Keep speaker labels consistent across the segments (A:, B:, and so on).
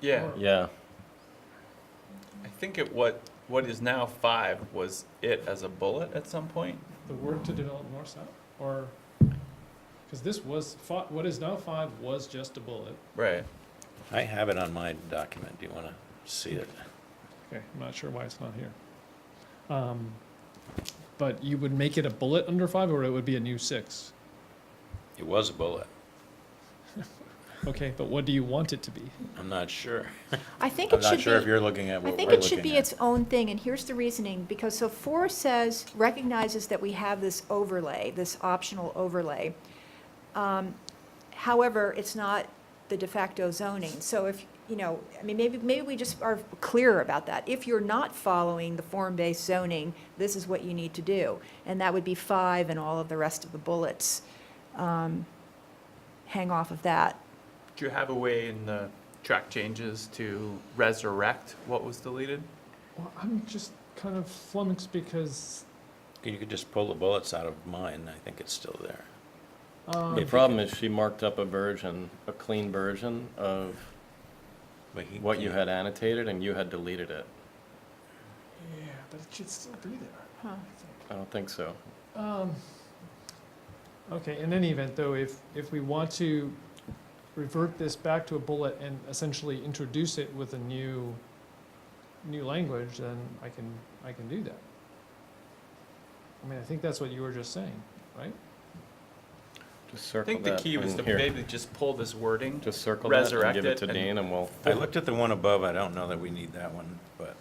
A: Yeah,
B: Yeah,
A: I think it, what, what is now five was it as a bullet at some point?
C: the work to develop north south, or, because this was, fi- what is now five was just a bullet.
A: Right.
B: I have it on my document. Do you want to see it?
C: Okay, I'm not sure why it's not here. Um, But you would make it a bullet under five, or it would be a new six?
B: It was a bullet.
C: Okay, but what do you want it to be?
B: I'm not sure.
D: I think
B: I'm
D: it
B: not
D: should
B: sure if
D: be,
B: you're looking at
D: I
B: what we're
D: think
B: looking
D: it should be
B: at.
D: its own thing, and here's the reasoning, because so four says, recognizes that we have this overlay, this optional overlay. Um, However, it's not the de facto zoning, so if, you know, I mean, maybe, maybe we just are clear about that. If you're not following the form-based zoning, this is what you need to do, and that would be five and all of the rest of the bullets. Um, Hang off of that.
A: Do you have a way in the track changes to resurrect what was deleted?
C: Well, I'm just kind of flummoxed because,
B: You could just pull the bullets out of mine. I think it's still there.
C: um,
E: The problem is she marked up a version, a clean version of
B: But he
E: what you
B: can't-
E: had annotated and you had deleted it.
C: yeah, but it should still be there,
D: Huh.
C: I think.
E: I don't think so.
C: Um, Okay, in any event, though, if, if we want to revert this back to a bullet and essentially introduce it with a new, new language, then I can, I can do that. I mean, I think that's what you were just saying, right?
E: Just
A: I
E: circle that.
A: think the key was
E: and
A: to
E: here.
A: maybe just pull this wording.
E: Just circle that and
A: resurrect
E: give
A: it
E: it to
A: and-
E: Dean and we'll.
B: I looked at the one above. I don't know that we need that one, but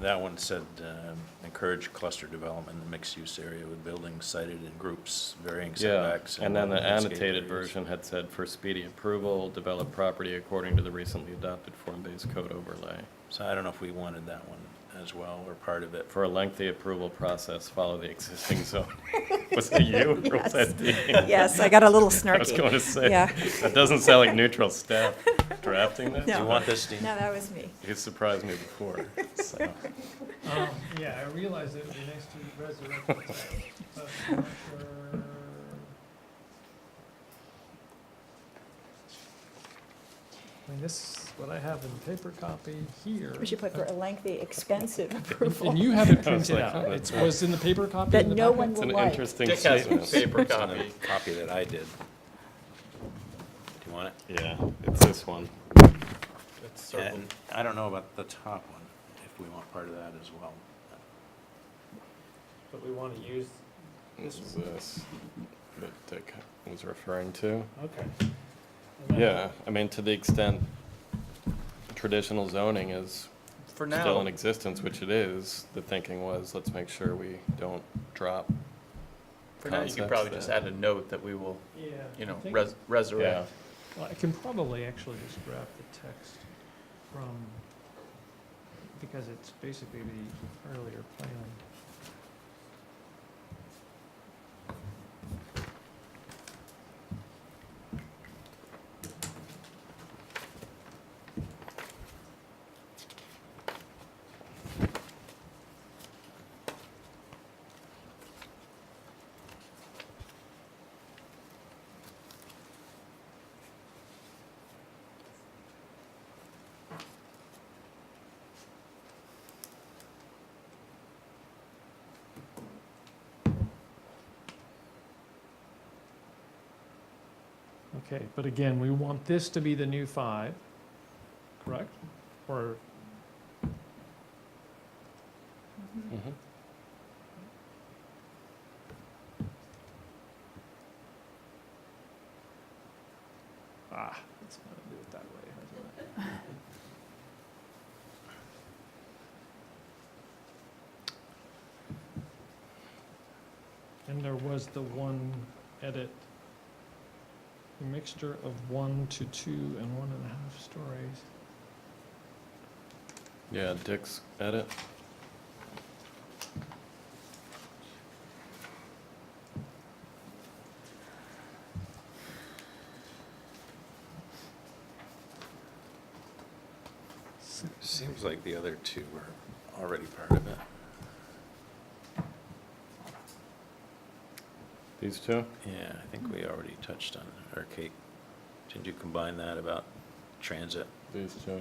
B: that one said, um, encourage cluster development in the mixed-use area with buildings sited in groups varying
E: Yeah,
B: setbacks.
E: and then the
B: landscape
E: annotated
B: areas.
E: version had said for speedy approval, develop property according to the recently adopted form-based code overlay.
B: So I don't know if we wanted that one as well, or part of it.
E: For a lengthy approval process, follow the existing zone. Was that you or was that Dean?
D: Yes, I got a little
E: I was
D: snarky.
E: going to say,
D: Yeah.
E: that doesn't sound like neutral staff drafting this.
B: Do you
D: No.
B: want this, Dean?
D: No, that was me.
E: You surprised me before, so.
C: Um, yeah, I realize it would be nice to resurrect it, but I'm not sure. I mean, this is what I have in paper copy here.
D: We should put for a lengthy, expensive approval.
C: And you have it
E: I was
C: printed
E: like,
C: out.
E: oh,
C: It
E: that's-
C: was in the paper copy
D: That
C: in the
D: no
C: packet?
D: one
E: It's
D: will
E: an
D: like.
E: interesting
A: Dick has a
E: statement.
A: paper
B: It's in the
A: copy.
B: Copy that I did. Do you want it?
E: Yeah, it's this one.
A: It's circled.
B: And I don't know about the top one, if we want part of that as well.
C: But we want to use,
E: This is this that Dick was referring to.
C: okay.
E: Yeah, I mean, to the extent traditional zoning is
A: For
E: still in
A: now,
E: existence, which it is, the thinking was, let's make sure we don't drop.
A: for now, you could
E: concepts
A: probably just
E: that-
A: add a note that we will,
C: Yeah.
A: you know, res- resurrect.
C: Well, I can probably actually just grab the text from, because it's basically the earlier plan. Okay, but again, we want this to be the new five, correct? Or,
D: Mhm.
E: Mhm.
C: ah, let's not do it that way, hasn't it? And there was the one edit, a mixture of one to two and one and a half stories.
E: Yeah, Dick's edit.
B: Seems like the other two were already part of it.
E: These two?
B: Yeah, I think we already touched on, it. or Kate, did you combine that about transit?
E: These two.